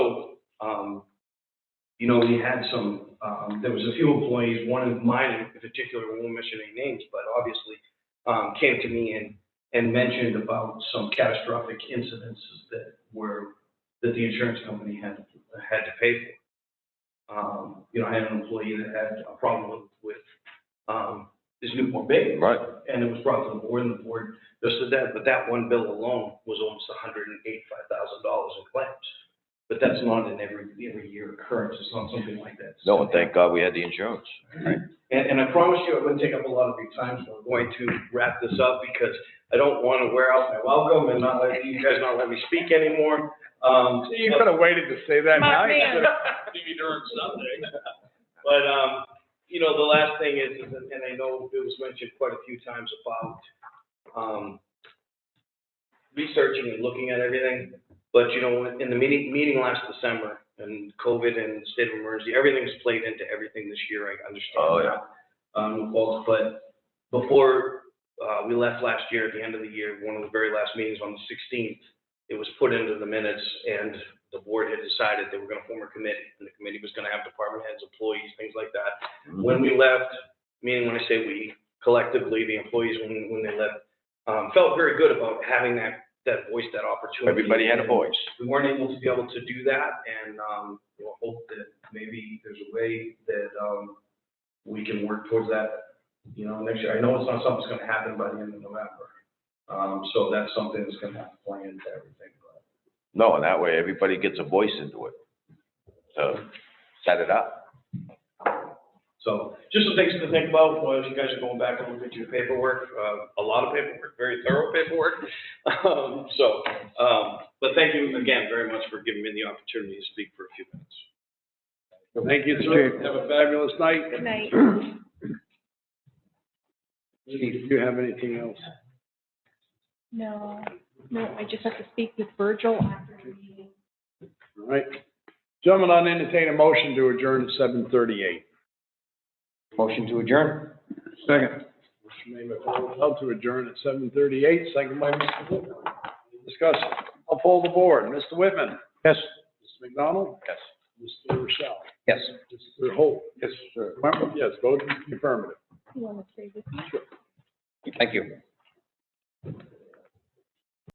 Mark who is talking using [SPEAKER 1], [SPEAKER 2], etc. [SPEAKER 1] Um, You know, we had some, um, there was a few employees, one of mine in particular, we won't mention any names, but obviously, um, came to me and, and mentioned about some catastrophic incidences that were, that the insurance company had, had to pay for. Um, You know, I had an employee that had a problem with, um, his newborn baby
[SPEAKER 2] Right,
[SPEAKER 1] and it was brought to the board, and the board just did that, but that one bill alone was almost hundred and eighty-five thousand dollars in claims. But that's not an every, every year occurrence, it's not something like that.
[SPEAKER 2] no, and thank God we had the insurance.
[SPEAKER 1] And, and I promise you, I wouldn't take up a lot of your time, so I'm going to wrap this up because I don't want to wear out my welcome and not let, you guys not let me speak anymore. Um,
[SPEAKER 3] You could have waited to say that.
[SPEAKER 4] My
[SPEAKER 3] now you
[SPEAKER 4] man.
[SPEAKER 3] could've-
[SPEAKER 1] maybe during something. But, um, you know, the last thing is, is- and I know it was mentioned quite a few times about, um, researching and looking at everything, but you know, in the meeting, meeting last December, and COVID and the state of emergency, everything's played into everything this year, I
[SPEAKER 2] Oh,
[SPEAKER 1] understand that. Um, well, but before, uh, we left last year, at the end of the year, one of the very last meetings on the sixteenth, it was put into the minutes and the board had decided they were gonna form a committee, and the committee was gonna have department heads, employees, things like that.
[SPEAKER 2] Mm-hmm.
[SPEAKER 1] When we left, meaning when I say we, collectively, the employees, when, when they left, um, felt very good about having that, that voice, that opportunity.
[SPEAKER 2] Everybody had a voice.
[SPEAKER 1] We weren't able to be able to do that, and, um, you know, hope that maybe there's a way that, um, we can work towards that, you know, next year. I know it's not something that's gonna happen by the end of November. Um, so that's something that's gonna have to play into everything, but.
[SPEAKER 2] No, and that way everybody gets a voice into it. So, set it up.
[SPEAKER 1] So just some things to think about while you guys are going back and looking at your paperwork, uh, a lot of paperwork, very thorough paperwork. Um, so, um, but thank you again very much for giving me the opportunity to speak for a few minutes.
[SPEAKER 3] Thank you, sir. Have a fabulous night.
[SPEAKER 4] Good night.
[SPEAKER 3] Did you have anything else?
[SPEAKER 4] No, no, I just have to speak with Virgil after the meeting.
[SPEAKER 3] All right. Gentlemen, I'll entertain a motion to adjourn at seven thirty-eight.
[SPEAKER 2] Motion to adjourn?
[SPEAKER 3] Second. Motion made by Paul Russell to adjourn at seven thirty-eight, second by Mr. Whitman. Discussion. I'll poll the board. Mr. Whitman? Yes. Mr. McDonald?
[SPEAKER 2] Yes.
[SPEAKER 3] Mr. Rochelle?
[SPEAKER 2] Yes.
[SPEAKER 3] Mr. Holt? Yes, sir. Wentworth, yes, vote in the affirmative.
[SPEAKER 4] You want to stay with me?
[SPEAKER 2] Thank you.